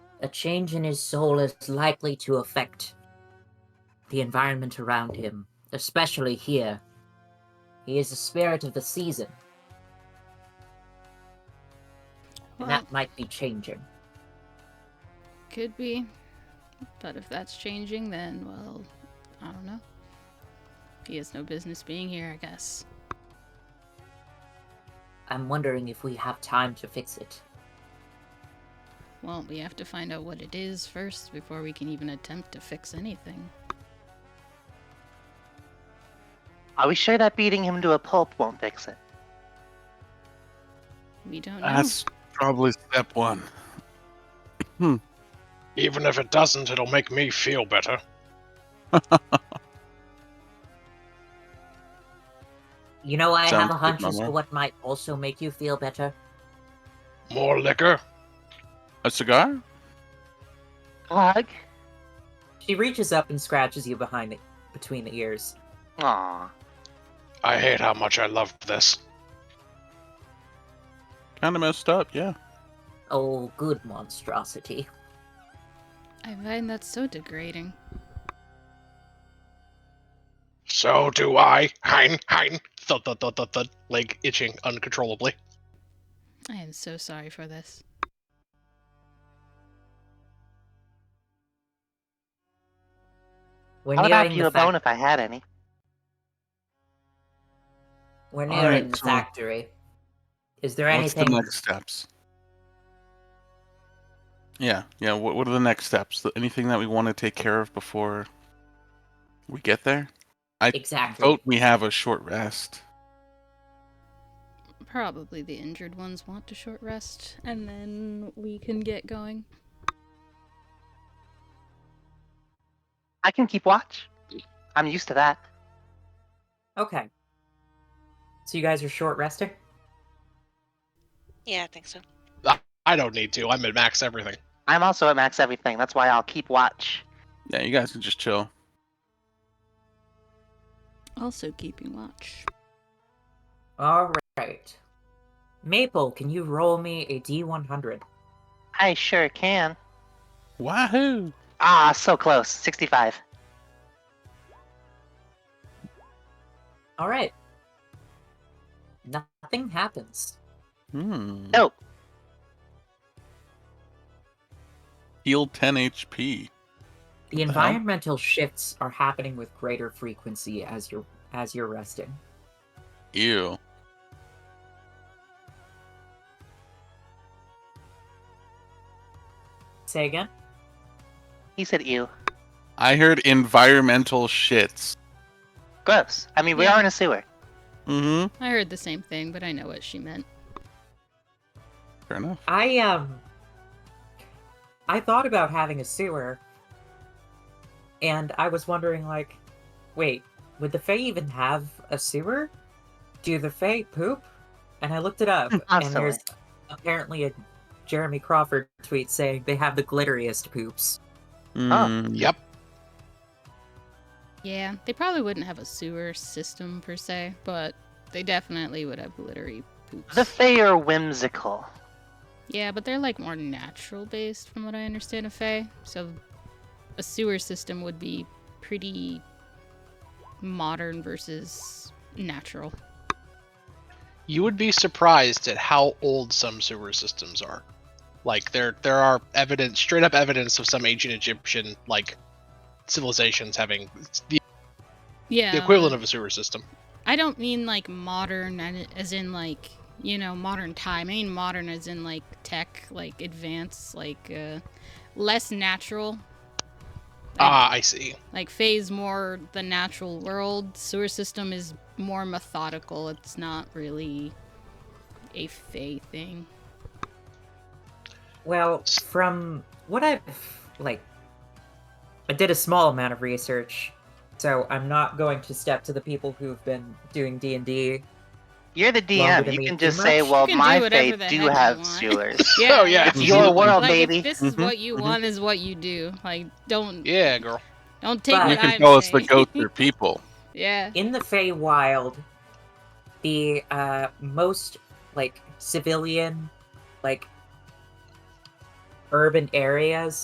a change in his soul is likely to affect the environment around him, especially here. He is a spirit of the season, and Well, that might be changing. could be. But if that's changing, then, well, I don't know. He has no business being here, I guess. I'm wondering if we have time to fix it. Well, we have to find out what it is first before we can even attempt to fix anything. Are we sure that beating him to a pulp won't fix it? We don't know. That's probably step one. Even if it doesn't, it'll make me feel better. You know, I have Sounds a good, hunch as Mama. to what might also make you feel better. More liquor? A cigar? Glug? She reaches up and scratches you behind the, between the ears. Aw. I hate how much I love this. Kind of messed up, yeah. Oh, good monstrosity. I find that so degrading. So do I. Hein, hein. Thud, thud, thud, thud, thud. Leg itching uncontrollably. I am so sorry for this. We're How about nearing you the a bone fac- if I had any? We're All nearing right, the so factory. Is there What's the anything? next steps? Yeah, yeah. What, what are the next steps? Th- Anything that we want to take care of before we get there? Exactly. Vote we have a short rest. Probably the injured ones want a short rest, and then we can get going. I can keep watch. I'm used to that. Okay. So you guys are short resting. Yeah, I think so. I don't need to. I'm at max everything. I'm also at max everything. That's why I'll keep watch. Yeah, you guys can just chill. Also, keeping watch. All right. Maple, can you roll me a D100? I sure can. Wahoo! Ah, so close. 65. All right. Nothing happens. Hmm. Mm. Nope. Heal 10 The HP. the hell? environmental shifts are happening with greater frequency as you're as you're resting. Ew. Say again. He said ew. I heard environmental shits. Gross. I mean, we Yeah. are in a sewer. Mm-hmm. I heard the same thing, but I know what she meant. Fair enough. I um I thought about having a sewer and I was wondering like wait, would the Fae even have a sewer? Do the Fae poop? And I looked it up and there's apparently a Jeremy Crawford tweet saying they have the glitteriest poops. Mm. Yep. Yeah, they probably wouldn't have a sewer system per se, but they definitely would have glittery poops. The Fae are whimsical. yeah, but they're like more natural based, from what I understand of Fae. So a sewer system would be pretty modern versus natural. You would be surprised at how old some sewer systems are. Like there there are evidence straight up evidence of some ancient Egyptian like civilizations having the, Yeah. the equivalent of a sewer system. I don't mean like modern and- as in like, you know, modern time. I mean modern as in like tech, like advanced, like uh, less natural. Ah, I see. Like phase more the natural world. Sewer system is more methodical. It's not really a fey thing. Well, from what I've like, I did a small amount of research, so I'm not going to step to the people who've been doing D and D. You're the Longer DM. than You me can too just much. say, well, can do my whatever Fae the heck do you have want. sewers. Oh, yeah. It's your world, like, if baby. This is Mhm, what you mhm. want. Is what you do. Like, don't Yeah, girl. don't take. But- What You can I'm tell us the saying. goats are people. yeah. In the Feywild, the uh, most like civilian, like urban areas